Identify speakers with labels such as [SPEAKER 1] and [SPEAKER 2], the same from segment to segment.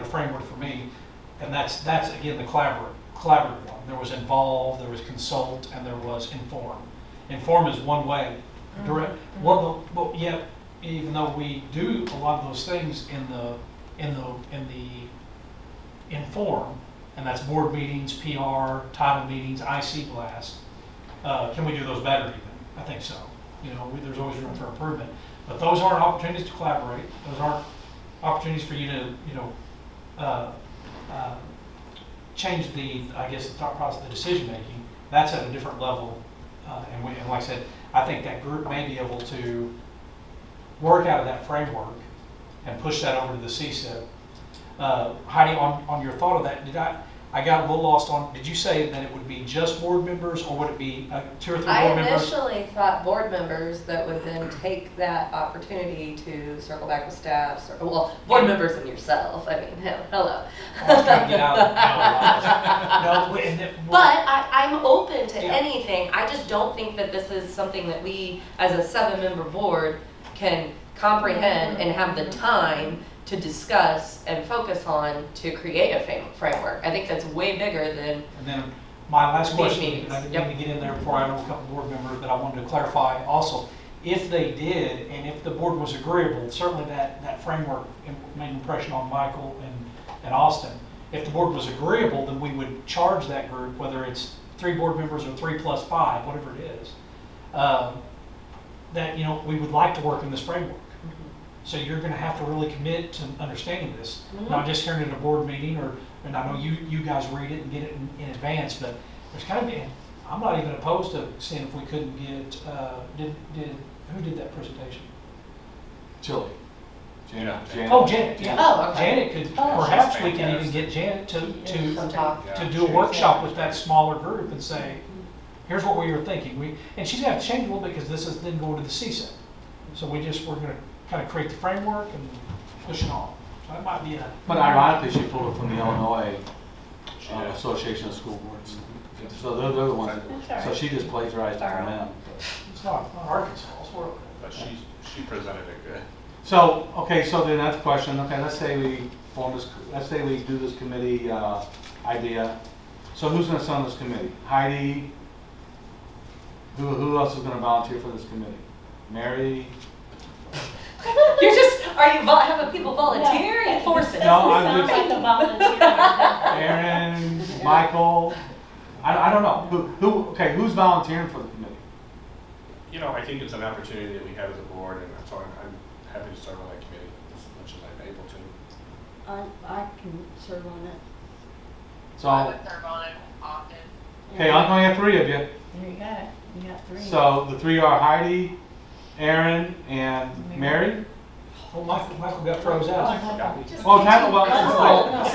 [SPEAKER 1] a framework for me, and that's, that's again, the collaborative, collaborative one. There was involve, there was consult, and there was inform. Inform is one way, direct, well, but- but yet, even though we do a lot of those things in the, in the, in the inform, and that's board meetings, PR, title meetings, IC blast, uh, can we do those better even? I think so. You know, we- there's always room for improvement, but those aren't opportunities to collaborate, those aren't opportunities for you to, you know, uh, uh, change the, I guess, the thought process, the decision-making, that's at a different level. Uh, And we, and like I said, I think that group may be able to work out of that framework and push that over to the CSIP. Uh, Heidi, on, on your thought of that, did I, I got a little lost on, did you say that it would be just board members, or would it be uh, two or three
[SPEAKER 2] I
[SPEAKER 1] board members?
[SPEAKER 2] initially thought board members that would then take that opportunity to circle back with staff, cir- well, board members and yourself, I mean, he- hello.
[SPEAKER 1] I was trying to get out. No, No, and it-
[SPEAKER 2] But I, I'm open to
[SPEAKER 1] Yeah.
[SPEAKER 2] anything, I just don't think that this is something that we, as a seven-member board, can comprehend and have the time to discuss and focus on to create a fam- framework. I think that's way bigger than,
[SPEAKER 1] And then my last
[SPEAKER 2] These
[SPEAKER 1] question,
[SPEAKER 2] meetings,
[SPEAKER 1] and I didn't
[SPEAKER 2] yep.
[SPEAKER 1] mean to get in there before I know a couple board members, but I wanted to clarify also. If they did, and if the board was agreeable, certainly that, that framework im- made an impression on Michael and, and Austin. If the board was agreeable, then we would charge that group, whether it's three board members or three plus five, whatever it is. um, That, you know, we would like to work in this framework. So you're gonna have to really commit to understanding this,
[SPEAKER 2] Mm-hmm.
[SPEAKER 1] not just hearing it at a board meeting or, and I know you, you guys read it and get it in, in advance, but there's kind of, been- I'm not even opposed to seeing if we couldn't get, uh, did, did, who did that presentation?
[SPEAKER 3] Chili. Janet. Janet.
[SPEAKER 1] Oh, Janet, yeah.
[SPEAKER 2] oh, okay.
[SPEAKER 1] Janet could,
[SPEAKER 2] Oh, she's
[SPEAKER 1] perhaps we can even get Janet to,
[SPEAKER 2] Mm-hmm. Some
[SPEAKER 1] to,
[SPEAKER 2] talk.
[SPEAKER 1] to do a workshop with that smaller group and say, here's what we were thinking, we, and she's gonna have to change a little bit because this is then going to the CSEP. So we just, we're gonna kind of create the framework and push it on. So that might be a,
[SPEAKER 3] But ironically, she pulled it from the Illinois uh,
[SPEAKER 4] Yeah. Mm-hmm.
[SPEAKER 3] Association of School Boards. So they're, they're the ones, that- so she just plagiarized it from them.
[SPEAKER 1] it's not, not Arkansas, it's world.
[SPEAKER 4] But she, she presented it good.
[SPEAKER 3] So, okay, so then that's the question, okay, let's say we form this, let's say we do this committee, uh, idea. So who's gonna sit on this committee? Heidi? Who, who else is gonna volunteer for this committee? Mary?
[SPEAKER 2] You're just, are you, vol- having people volunteering for it?
[SPEAKER 3] No, I'm
[SPEAKER 5] Sounds
[SPEAKER 3] just-
[SPEAKER 5] like a volunteer.
[SPEAKER 3] Aaron, Michael, I, I don't know, who, who, okay, who's volunteering for the committee?
[SPEAKER 4] You know, I think it's an opportunity that we have as a board, and so I'm, I'm happy to serve on that committee as much as I'm able to.
[SPEAKER 5] I, I can serve on it.
[SPEAKER 6] I
[SPEAKER 3] So,
[SPEAKER 6] would serve on it often.
[SPEAKER 3] okay, I'm gonna have three of you,
[SPEAKER 5] There you go, you got three.
[SPEAKER 3] so the three are Heidi, Aaron, and Mary?
[SPEAKER 1] Well, Michael, Michael got
[SPEAKER 5] Oh,
[SPEAKER 1] froze out.
[SPEAKER 3] Well, Tackle Wellness is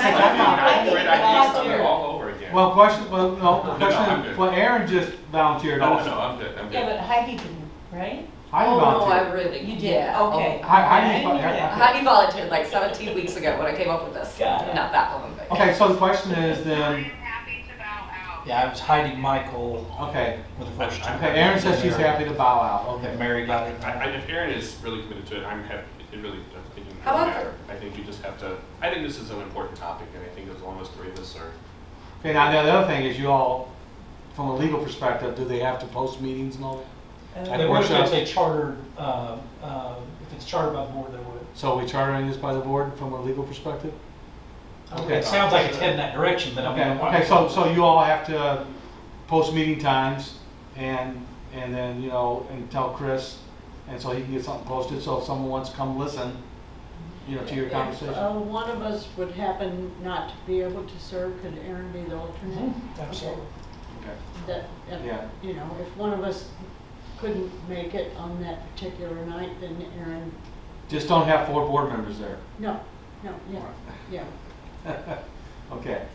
[SPEAKER 5] I know, I
[SPEAKER 4] I
[SPEAKER 5] think
[SPEAKER 4] did I
[SPEAKER 5] last
[SPEAKER 4] did something
[SPEAKER 5] year-
[SPEAKER 4] all over again.
[SPEAKER 3] still, well, question, well, no,
[SPEAKER 4] No, no, I'm
[SPEAKER 3] question,
[SPEAKER 4] good.
[SPEAKER 3] well, Aaron just volunteered
[SPEAKER 4] No, no,
[SPEAKER 3] also.
[SPEAKER 4] no, I'm good, I'm
[SPEAKER 5] Yeah,
[SPEAKER 4] good.
[SPEAKER 5] but Heidi didn't, right?
[SPEAKER 3] Heidi
[SPEAKER 2] oh, no, I
[SPEAKER 3] volunteered.
[SPEAKER 2] really,
[SPEAKER 5] You did,
[SPEAKER 2] yeah.
[SPEAKER 5] okay.
[SPEAKER 3] Hi- Oh, Heidi,
[SPEAKER 5] Okay.
[SPEAKER 3] Heidi-
[SPEAKER 2] Heidi volunteered like 17 weeks ago when I came up with this.
[SPEAKER 5] Got it.
[SPEAKER 2] Not that long ago.
[SPEAKER 3] Okay, so the question is
[SPEAKER 6] I am
[SPEAKER 3] then,
[SPEAKER 6] happy to bow out.
[SPEAKER 1] Yeah, I was hiding Michael
[SPEAKER 3] okay,
[SPEAKER 1] with the first two.
[SPEAKER 3] okay, Aaron says she's happy to bow out,
[SPEAKER 1] Okay,
[SPEAKER 3] okay.
[SPEAKER 1] Mary got it.
[SPEAKER 4] I, I, if Aaron is really committed to it, I'm happy, it really, I think it doesn't
[SPEAKER 2] How about
[SPEAKER 4] matter. I think you just have to, I think this is an important topic, and I think as long as three of us are,
[SPEAKER 3] Okay, now, now the other thing is you all, from a legal perspective, do they have to post meetings and all that?
[SPEAKER 5] Oh.
[SPEAKER 1] They would if it's a charter, uh, uh, if it's chartered by the board, they would.
[SPEAKER 3] So we chartering this by the board from a legal perspective? Okay.
[SPEAKER 1] It sounds like it's heading that direction, but I
[SPEAKER 3] Okay,
[SPEAKER 1] mean.
[SPEAKER 3] okay, so, so you all have to post meeting times and, and then, you know, and tell Chris, and so he can get something posted, so if someone wants to come listen, you know, to your conversation.
[SPEAKER 7] Uh, one of us would happen not to be able to serve, could Aaron be the alternate?
[SPEAKER 5] Mm-hmm.
[SPEAKER 1] Mhm, Absolutely.
[SPEAKER 3] Okay.
[SPEAKER 7] That, if-
[SPEAKER 3] Yeah.
[SPEAKER 7] you know, if one of us couldn't make it on that particular night, then Aaron,
[SPEAKER 3] Just don't have four board members there.
[SPEAKER 7] no, no, yeah, yeah.
[SPEAKER 3] Okay.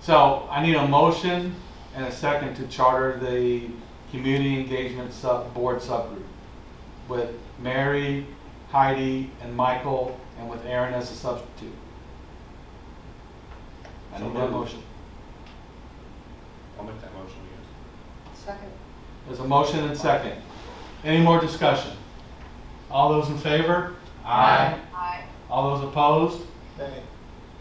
[SPEAKER 3] So I need a motion and a second to charter the community engagement sub, board subgroup with Mary, Heidi, and Michael, and with Aaron as a substitute. I need that motion.
[SPEAKER 4] I'll make that motion, yes.
[SPEAKER 2] Second.
[SPEAKER 3] There's a motion and second. Any more discussion? All those in favor? Aye.
[SPEAKER 6] I,
[SPEAKER 3] All those opposed?